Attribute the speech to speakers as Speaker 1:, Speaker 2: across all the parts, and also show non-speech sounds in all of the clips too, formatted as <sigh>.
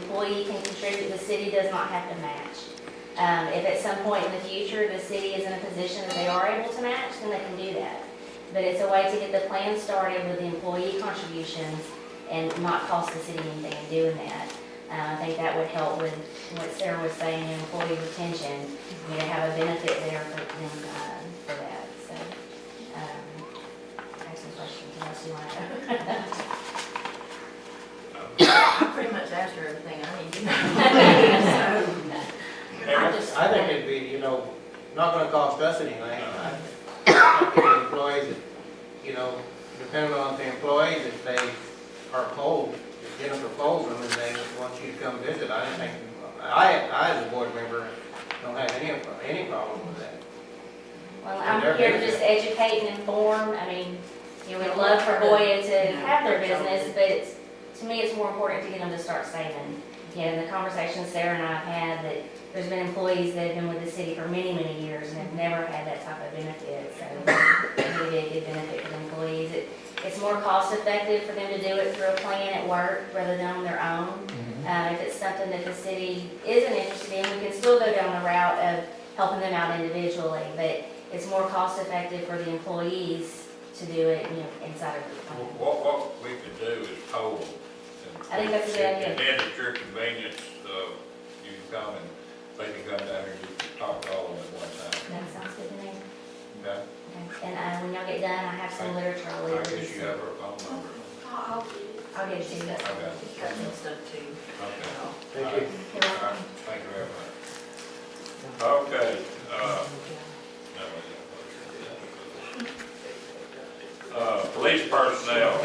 Speaker 1: employee can contribute, the city does not have to match. Um, if at some point in the future, the city is in a position that they are able to match, then they can do that. But it's a way to get the plan started with the employee contributions and not cost the city anything in doing that. Uh, I think that would help with what Sarah was saying, employee retention, you know, have a benefit there for them, um, for that, so. um, I have some questions, unless you want to.
Speaker 2: pretty much asked her everything I need
Speaker 1: <laughs>
Speaker 2: to know. So, I just-
Speaker 3: I think it'd be, you know, not gonna cost us anything. I think the Employees, you know, depending on the employees, if they are cold, if Jennifer polls them and they want you to come visit, I don't think, I, I as a board member, don't have any, any problem with that.
Speaker 1: Well, I'm here to just educate and inform, I mean, you know, we'd love for Hoya to have their business, but it's, to me, it's more important to get them to start saving. You know, the conversations Sarah and I have had, that there's been employees that have been with the city for many, many years and have never had that type of benefit, so it would be a good benefit for the employees. It- It's more cost effective for them to do it through a plan at work rather than on their own. Uh, if it's something that the city isn't interested in, we can still go down the route of helping them out individually, but it's more cost effective for the employees to do it, you know, inside of the plan.
Speaker 4: What, what we could do is poll them.
Speaker 1: I think that's a good idea.
Speaker 4: And then at your convenience, uh, you can come and they can come down here and you can talk to all of them at one time.
Speaker 1: That sounds good to me.
Speaker 4: Okay?
Speaker 1: Okay. And, uh, when y'all get done, I have some literature I'll
Speaker 4: I
Speaker 1: leave.
Speaker 4: guess you have her phone number.
Speaker 5: I'll,
Speaker 2: I'll get you that.
Speaker 4: Okay.
Speaker 2: She's got some stuff too.
Speaker 4: Okay.
Speaker 2: so.
Speaker 3: Thank you.
Speaker 1: You're
Speaker 4: All right.
Speaker 1: welcome.
Speaker 4: Thank you very much. Okay, uh, no, we don't. Uh, police personnel.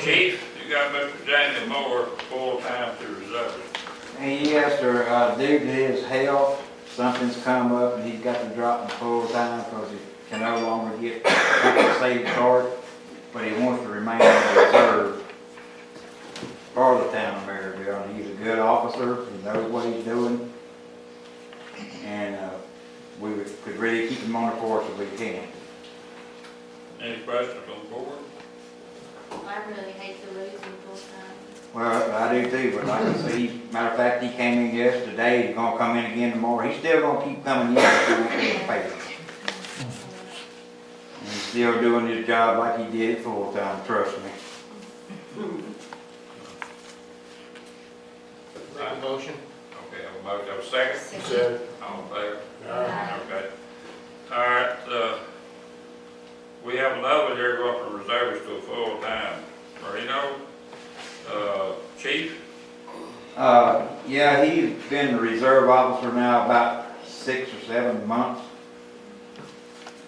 Speaker 4: Chief, you got Mr. Daniel Moore, full-time to reserve.
Speaker 6: And yes, sir, uh, due to his health, something's come up and he's got to drop the full time because he can no longer get the saved card, but he wants to remain in reserve for the town of Maryville. And he's a good officer, he knows what he's doing. And, uh, we would- could really keep him on the force if we can.
Speaker 4: Any questions on the board?
Speaker 5: I really hate to lose him full time.
Speaker 6: Well, I do too, but like I say, he- matter of fact, he came in yesterday, he's gonna come in again tomorrow. He's still gonna keep coming in if he won't get paid. And he's still doing his job like he did full time, trust me.
Speaker 3: Make a motion?
Speaker 4: Okay, I have a motion, I have a second. All in favor?
Speaker 3: uh,
Speaker 1: Aye.
Speaker 4: Okay. All right, uh, we have another here going from reservists to a full-time. Marino, uh, chief,
Speaker 6: Uh, yeah, he's been the reserve officer now about six or seven months.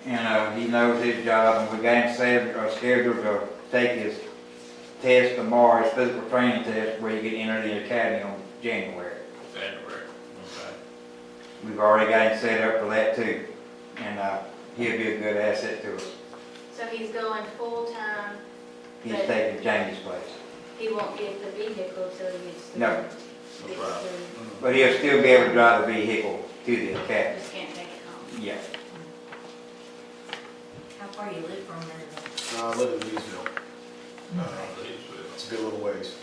Speaker 6: And, uh, he knows his job, and we got him scheduled, uh, scheduled to take his test tomorrow, his physical training test, where you get entered in the academy on January.
Speaker 4: January. Okay.
Speaker 6: We've already got him set up for that too, and, uh, he'll be a good asset to us.
Speaker 5: So he's going full time,
Speaker 6: He's taking Jamie's place.
Speaker 5: he won't get the vehicle till he gets the.
Speaker 6: No.
Speaker 5: gets
Speaker 4: Right.
Speaker 5: the-
Speaker 6: But he'll still be able to drive the vehicle to the academy.
Speaker 5: Just can't take it home.
Speaker 6: Yeah.
Speaker 2: How far you live from there?
Speaker 7: Uh, I live in Leesville. Uh,
Speaker 4: Leesville.
Speaker 7: It's a good little ways.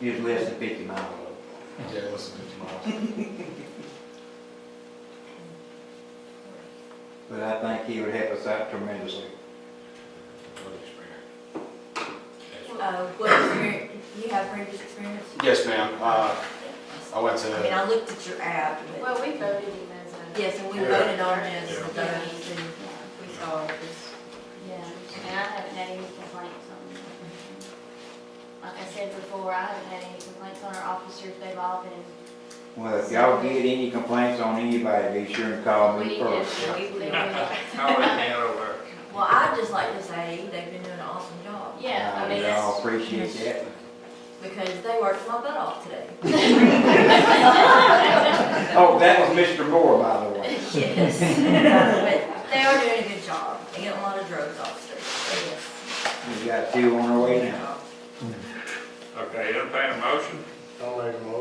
Speaker 6: He's less than fifty miles away.
Speaker 7: Yeah, less than 50 miles.
Speaker 6: But I think he would help us out tremendously.
Speaker 4: Good experience. Yes.
Speaker 2: Uh, what experience, you have previous experience?
Speaker 7: Yes, ma'am. Uh, I went
Speaker 2: I mean,
Speaker 7: to,
Speaker 2: I looked at your ad, but,
Speaker 5: Well, we voted him as a.
Speaker 2: yes, and we
Speaker 7: Yeah.
Speaker 2: voted on this,
Speaker 4: Yeah.
Speaker 2: and those, and we saw this.
Speaker 5: Yeah, and I haven't had any complaints on him. Like I said before, I haven't had any complaints on our officers, they've all been.
Speaker 6: Well, if y'all get any complaints on anybody, be sure and call me
Speaker 5: we-
Speaker 6: first.
Speaker 5: we- we-
Speaker 6: <laughs>
Speaker 5: we-
Speaker 4: How is that over?
Speaker 2: Well, I'd just like to say, they've been doing an awesome job.
Speaker 5: Yeah, I mean,
Speaker 6: And
Speaker 5: that's.
Speaker 6: I'll Uh, appreciate that.
Speaker 2: Because they worked my butt off today.
Speaker 5: <laughs>
Speaker 6: Oh, that was Mr. Moore, by the way.
Speaker 2: <laughs> Yes. But they are doing a good job, they get a lot of drugs off the street, yes.
Speaker 6: We got two on our way now.
Speaker 4: Okay, entertain a motion?
Speaker 3: Don't make a
Speaker 4: uh, Uh,